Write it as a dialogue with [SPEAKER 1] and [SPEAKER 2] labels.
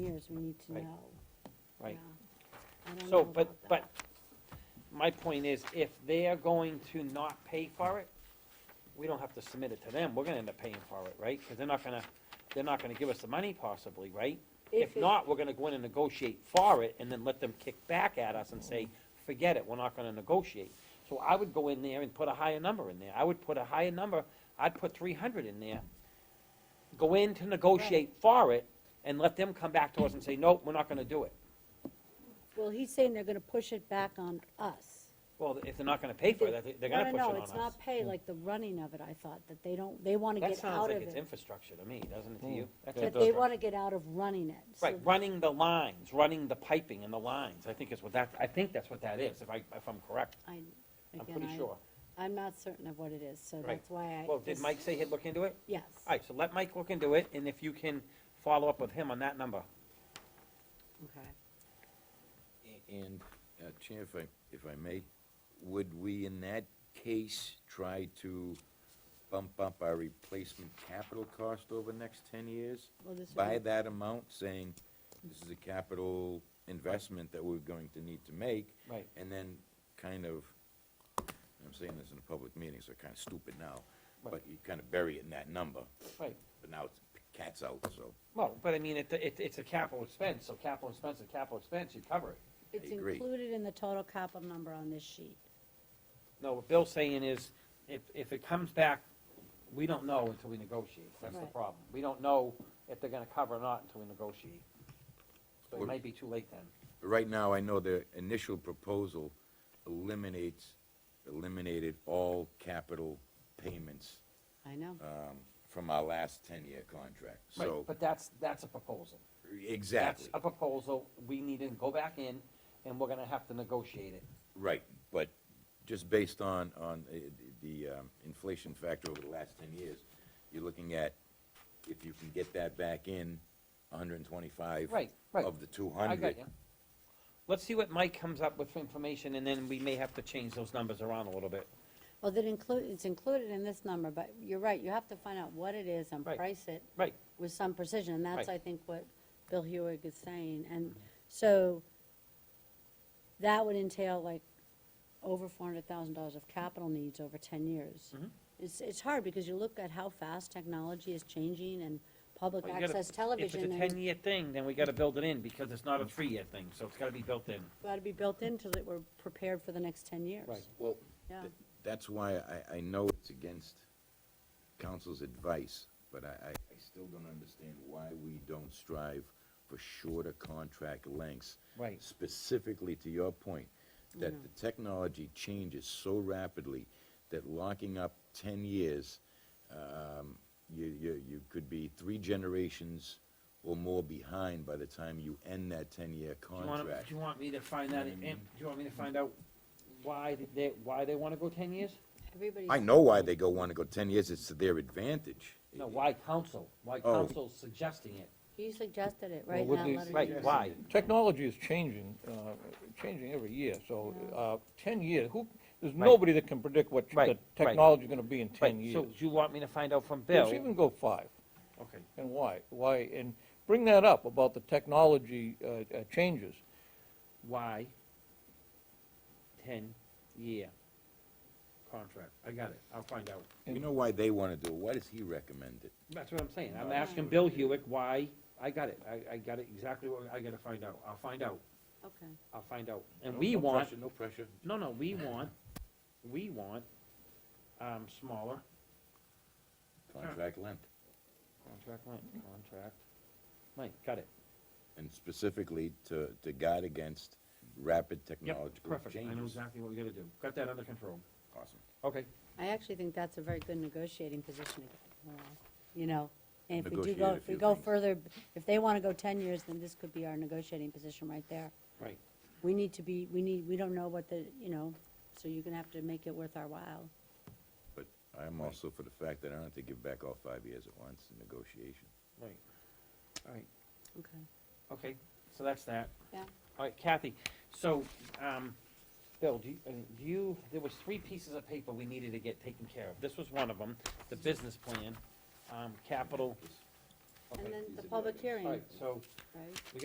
[SPEAKER 1] numbers we need to
[SPEAKER 2] Right.
[SPEAKER 1] know.
[SPEAKER 2] right?
[SPEAKER 1] Yeah. I don't know
[SPEAKER 2] So, but,
[SPEAKER 1] about
[SPEAKER 2] but,
[SPEAKER 1] that.
[SPEAKER 2] my point is, if they are going to not pay for it, we don't have to submit it to them, we're gonna end up paying for it, right? Cause they're not gonna, they're not gonna give us the money possibly, right? If
[SPEAKER 3] it-
[SPEAKER 2] not, we're gonna go in and negotiate for it, and then let them kick back at us and say, forget it, we're not gonna negotiate. So I would go in there and put a higher number in there, I would put a higher number, I'd put three hundred in there. Go in to negotiate for it, and let them come back to us and say, nope, we're not gonna do it.
[SPEAKER 1] Well, he's saying they're gonna push it back on us.
[SPEAKER 2] Well, if they're not gonna pay for it, they're gonna push it on us. Hmm.
[SPEAKER 1] No, no, no, it's not pay, like the running of it, I thought, that they don't, they wanna
[SPEAKER 2] That
[SPEAKER 1] get
[SPEAKER 2] sounds
[SPEAKER 1] out of
[SPEAKER 2] like it's
[SPEAKER 1] it.
[SPEAKER 2] infrastructure to me, doesn't it to you? That's
[SPEAKER 1] Hmm. That they
[SPEAKER 2] infrastructure.
[SPEAKER 1] wanna get out of running it. so-
[SPEAKER 2] Right, running the lines, running the piping and the lines, I think is what that, I think that's what that is, if I, if I'm correct,
[SPEAKER 1] I,
[SPEAKER 2] I'm
[SPEAKER 1] again,
[SPEAKER 2] pretty
[SPEAKER 1] I,
[SPEAKER 2] sure.
[SPEAKER 1] I'm not certain of what it is, so
[SPEAKER 2] Right.
[SPEAKER 1] that's why I.
[SPEAKER 2] Well, did
[SPEAKER 1] this-
[SPEAKER 2] Mike say he'd look into it?
[SPEAKER 1] Yes.
[SPEAKER 2] All right, so let Mike look into it, and if you can follow up with him on that number.
[SPEAKER 1] Okay.
[SPEAKER 4] And, uh, Chair, if I, if I may, would we in that case try to bump up our replacement capital cost over the next ten years?
[SPEAKER 1] Well, this would
[SPEAKER 4] By
[SPEAKER 1] be-
[SPEAKER 4] that amount, saying this is a capital investment that we're going to need to make?
[SPEAKER 2] Right.
[SPEAKER 4] And then kind of, I'm saying this in a public meeting, so kind of stupid now, but
[SPEAKER 2] Right.
[SPEAKER 4] you kind of bury it in that number,
[SPEAKER 2] Right,
[SPEAKER 4] but now it's, cat's out, so.
[SPEAKER 2] well, but I mean, it, it, it's a capital expense, so capital expense is capital expense, you cover it.
[SPEAKER 1] It's
[SPEAKER 4] agree.
[SPEAKER 1] included in the total capital number on this sheet.
[SPEAKER 2] No, what Bill's saying is, if, if it comes back, we don't know until we negotiate, that's the
[SPEAKER 1] Right.
[SPEAKER 2] problem. We don't know if they're gonna cover or not until we negotiate. So it
[SPEAKER 4] Or-
[SPEAKER 2] might be too late then.
[SPEAKER 4] Right now, I know the initial proposal eliminates, eliminated all capital payments
[SPEAKER 1] I know.
[SPEAKER 4] um, from our last ten-year contract,
[SPEAKER 2] Right,
[SPEAKER 4] so,
[SPEAKER 2] But that's, that's a proposal. That's
[SPEAKER 4] exactly,
[SPEAKER 2] a proposal, we need to go back in, and we're gonna have to negotiate it.
[SPEAKER 4] right, but just based on, on uh, the um, inflation factor over the last ten years, you're looking at, if you can get that back in, hundred and twenty-five
[SPEAKER 2] Right, right.
[SPEAKER 4] of the two
[SPEAKER 2] I
[SPEAKER 4] hundred.
[SPEAKER 2] got you. Let's see what Mike comes up with for information, and then we may have to change those numbers around a little bit.
[SPEAKER 1] Well, that include, it's included in this number, but you're right, you have to find out what it is and
[SPEAKER 2] Right.
[SPEAKER 1] price it
[SPEAKER 2] Right,
[SPEAKER 1] with some precision, and that's,
[SPEAKER 2] Right.
[SPEAKER 1] I think, what Bill Hewig is saying, and so that would entail like over four hundred thousand dollars of capital needs over ten years.
[SPEAKER 2] Mm-hmm.
[SPEAKER 1] It's, it's hard, because you look at how fast technology is changing and public
[SPEAKER 2] Well, you gotta-
[SPEAKER 1] access
[SPEAKER 2] if
[SPEAKER 1] television,
[SPEAKER 2] it's a
[SPEAKER 1] and
[SPEAKER 2] ten-year thing, then we gotta build it in, because it's not a three-year thing, so it's gotta be built in.
[SPEAKER 1] gotta be built in so that we're prepared for the next ten years.
[SPEAKER 2] Right.
[SPEAKER 4] Well,
[SPEAKER 1] Yeah.
[SPEAKER 4] Th- That's why I, I know it's against council's advice, but I, I, I still don't understand why we don't strive for shorter contract lengths.
[SPEAKER 2] Right.
[SPEAKER 4] Specifically to your point, that the technology changes so rapidly that locking up ten years, um, you, you, you could be three generations or more behind by the time you end that ten-year
[SPEAKER 2] Do you want,
[SPEAKER 4] contract.
[SPEAKER 2] do you want me to find that, in- in- do you want me to find out why did they, why they wanna go ten years?
[SPEAKER 1] Everybody's.
[SPEAKER 4] I know why they go, wanna go ten years, it's to their advantage.
[SPEAKER 2] No, why council? Why
[SPEAKER 4] Oh.
[SPEAKER 2] council's suggesting it?
[SPEAKER 1] He suggested it,
[SPEAKER 5] Well,
[SPEAKER 1] right? in
[SPEAKER 5] what
[SPEAKER 1] that
[SPEAKER 5] they-
[SPEAKER 1] letter you wrote.
[SPEAKER 2] Right, why?
[SPEAKER 5] Technology is changing, uh, changing every year, so
[SPEAKER 1] Yeah.
[SPEAKER 5] uh, 10 years, who, there's
[SPEAKER 2] Right.
[SPEAKER 5] nobody that can predict what
[SPEAKER 2] Right,
[SPEAKER 5] the
[SPEAKER 2] right.
[SPEAKER 5] technology's going to be in
[SPEAKER 2] Right,
[SPEAKER 5] 10 years.
[SPEAKER 2] so do you want me to find out from Bill?
[SPEAKER 5] Let's even go five,
[SPEAKER 2] Okay.
[SPEAKER 5] and why, why, and bring that up about the technology uh, uh, changes.
[SPEAKER 2] Why ten-year contract? I got it, I'll find out.
[SPEAKER 4] You know why they wanna do it, why does he recommend it?
[SPEAKER 2] That's what I'm saying, I'm asking Bill Hewitt why, I got it, I, I got it exactly what I gotta find out, I'll find out,
[SPEAKER 1] Okay.
[SPEAKER 2] I'll find out. And we want,
[SPEAKER 4] No pressure.
[SPEAKER 2] no, no, we want, we want, um, smaller
[SPEAKER 4] Contract length,
[SPEAKER 2] contract length, contract length, got it.
[SPEAKER 4] and specifically to, to guard against rapid
[SPEAKER 2] Yep,
[SPEAKER 4] technological
[SPEAKER 2] perfect, I know
[SPEAKER 4] changes.
[SPEAKER 2] exactly what we gotta do, got that under control.
[SPEAKER 4] Awesome.
[SPEAKER 2] Okay.
[SPEAKER 1] I actually think that's a very good negotiating position, uh, you know, and if we do go,
[SPEAKER 4] Negotiate a
[SPEAKER 1] if we
[SPEAKER 4] few
[SPEAKER 1] go
[SPEAKER 4] things.
[SPEAKER 1] further, if they want to go 10 years, then this could be our negotiating position right there.
[SPEAKER 2] Right.
[SPEAKER 1] We need to be, we need, we don't know what the, you know, so you're going to have to make it worth our while.
[SPEAKER 4] But I'm also for the fact that I don't have to give back all five years at once in negotiation.
[SPEAKER 2] Right, all right,
[SPEAKER 1] Okay.
[SPEAKER 2] okay, so that's that.
[SPEAKER 1] Yeah.
[SPEAKER 2] All right, Kathy, so, um, Bill, do you, uh, do you, there was three pieces of paper we needed to get taken care of. This was one of them, the business plan, um, capital.
[SPEAKER 1] And
[SPEAKER 2] Okay,
[SPEAKER 1] then
[SPEAKER 4] these are
[SPEAKER 1] the
[SPEAKER 4] the
[SPEAKER 1] public
[SPEAKER 4] items.
[SPEAKER 2] all
[SPEAKER 1] hearing,
[SPEAKER 2] right, so.
[SPEAKER 1] right?